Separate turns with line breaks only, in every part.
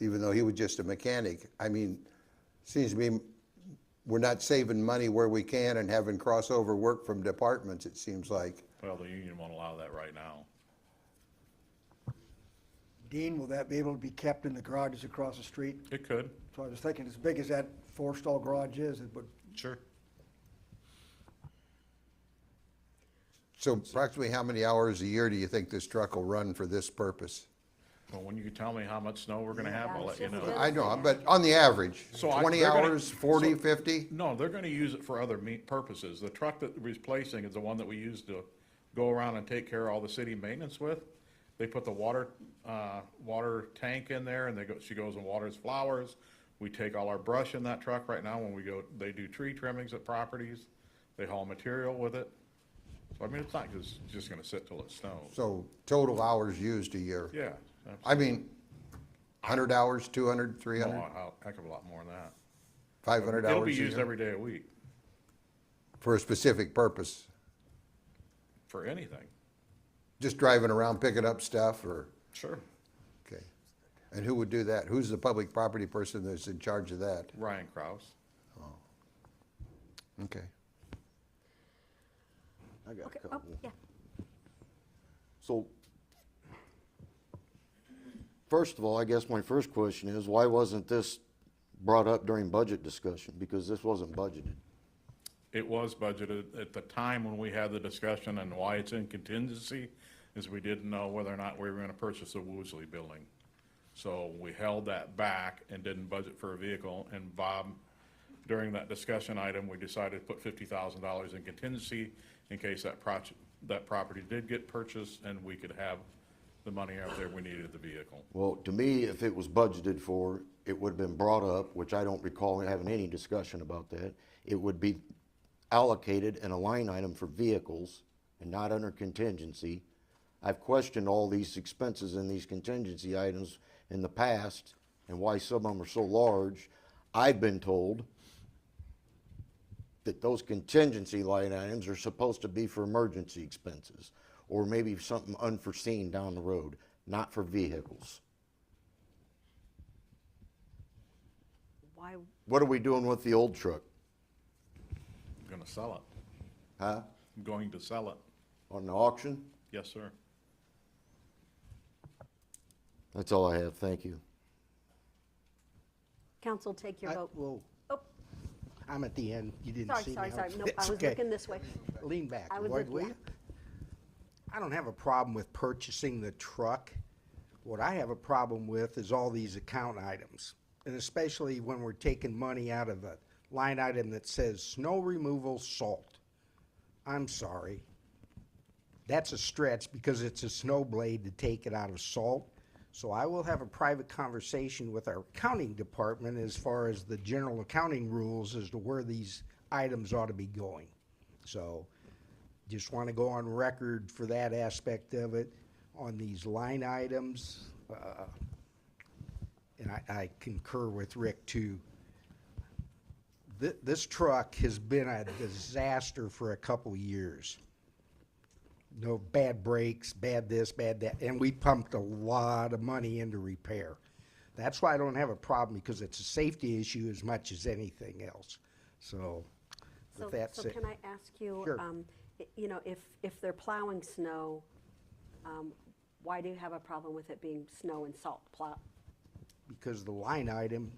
even though he was just a mechanic. I mean, seems to me we're not saving money where we can and having crossover work from departments, it seems like.
Well, the union won't allow that right now.
Dean, will that be able to be kept in the garages across the street?
It could.
So I was thinking, as big as that four-stall garage is, it would,
Sure.
So approximately how many hours a year do you think this truck will run for this purpose?
Well, when you tell me how much snow we're gonna have, I'll let you know.
I know, but on the average,
So I-
twenty
they're gonna-
hours, forty,
so-
fifty?
No, they're gonna use it for other me purposes. The truck that we're replacing is the one that we use to go around and take care of all the city maintenance with. They put the water, uh, water tank in there and they go, she goes and waters flowers. We take all our brush in that truck right now when we go, they do tree trimmings at properties. They haul material with it. So I mean, it's not just, just gonna sit till it snows.
So total hours used a year?
Yeah,
I mean, hundred hours, 200, 300, 500
a lot, heck of a lot more than that. It'll
hours
be
a
used
year?
every day a week
For a specific purpose,
for anything.
just driving around picking up stuff or,
Sure.
okay. And who would do that? Who's the public property person that's in charge of that?
Ryan Kraus.
Okay.
I got
Okay,
a
oh,
couple.
yeah.
So, first of all, I guess my first question is, why wasn't this brought up during budget discussion? Because this wasn't budgeted.
It was budgeted at the time when we had the discussion and why it's in contingency is we didn't know whether or not we were gonna purchase the Woosley building. So we held that back and didn't budget for a vehicle and Bob, during that discussion item, we decided to put fifty thousand dollars in contingency in case that project, that property did get purchased and we could have the money out there we needed the vehicle.
Well, to me, if it was budgeted for, it would have been brought up, which I don't recall having any discussion about that. It would be allocated in a line item for vehicles and not under contingency. I've questioned all these expenses in these contingency items in the past and why some of them are so large. I've been told that those contingency line items are supposed to be for emergency expenses or maybe something unforeseen down the road, not for vehicles.
Why,
What are we doing with the old truck?
Gonna sell it.
Huh?
I'm going to sell it.
On the auction?
Yes, sir.
That's all I have, thank you.
council, take your
I-
vote.
Whoa,
Oh,
I'm at the end. You didn't
sorry,
see me.
sorry,
I
sorry.
was-
No,
That's
I was
okay.
looking this way.
Lean back,
I was
Lloyd,
looking-
will
yeah.
you? I don't have a problem with purchasing the truck. What I have a problem with is all these account items. And especially when we're taking money out of a line item that says snow removal salt. I'm sorry. That's a stretch because it's a snow blade to take it out of salt. So I will have a private conversation with our accounting department as far as the general accounting rules as to where these items ought to be going. So just want to go on record for that aspect of it on these line items. uh, And I, I concur with Rick too. Thi- this truck has been a disaster for a couple years no bad brakes, bad this, bad that, and we pumped a lot of money into repair. That's why I don't have a problem, because it's a safety issue as much as anything else. So,
So,
with that
so
said,
can I ask you,
Sure.
um, y- you know, if, if they're plowing snow, um, why do you have a problem with it being snow and salt plow?
because the line item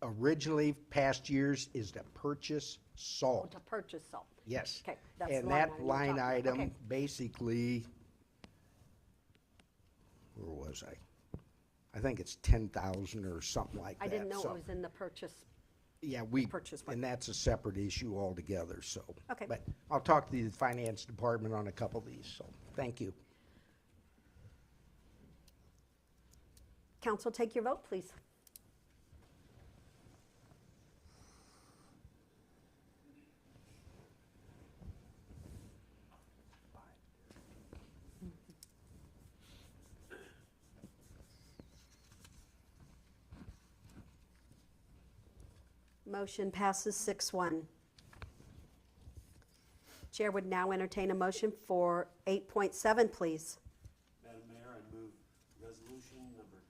originally, past years, is to purchase salt.
To purchase salt?
Yes.
Okay, that's the
And
line
that
item we're
line
talking about.
item,
Okay.
basically, where was I? I think it's ten thousand or something like that.
I didn't know it
so-
was in the purchase.
Yeah, we,
purchase one.
and that's a separate issue altogether, so.
Okay.
But I'll talk to the finance department on a couple of these, so, thank you.
Council, take your vote, please. Motion passes six one. Chair would now entertain a motion for eight point seven, please.
Madam Mayor, I move resolution number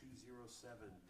two zero seven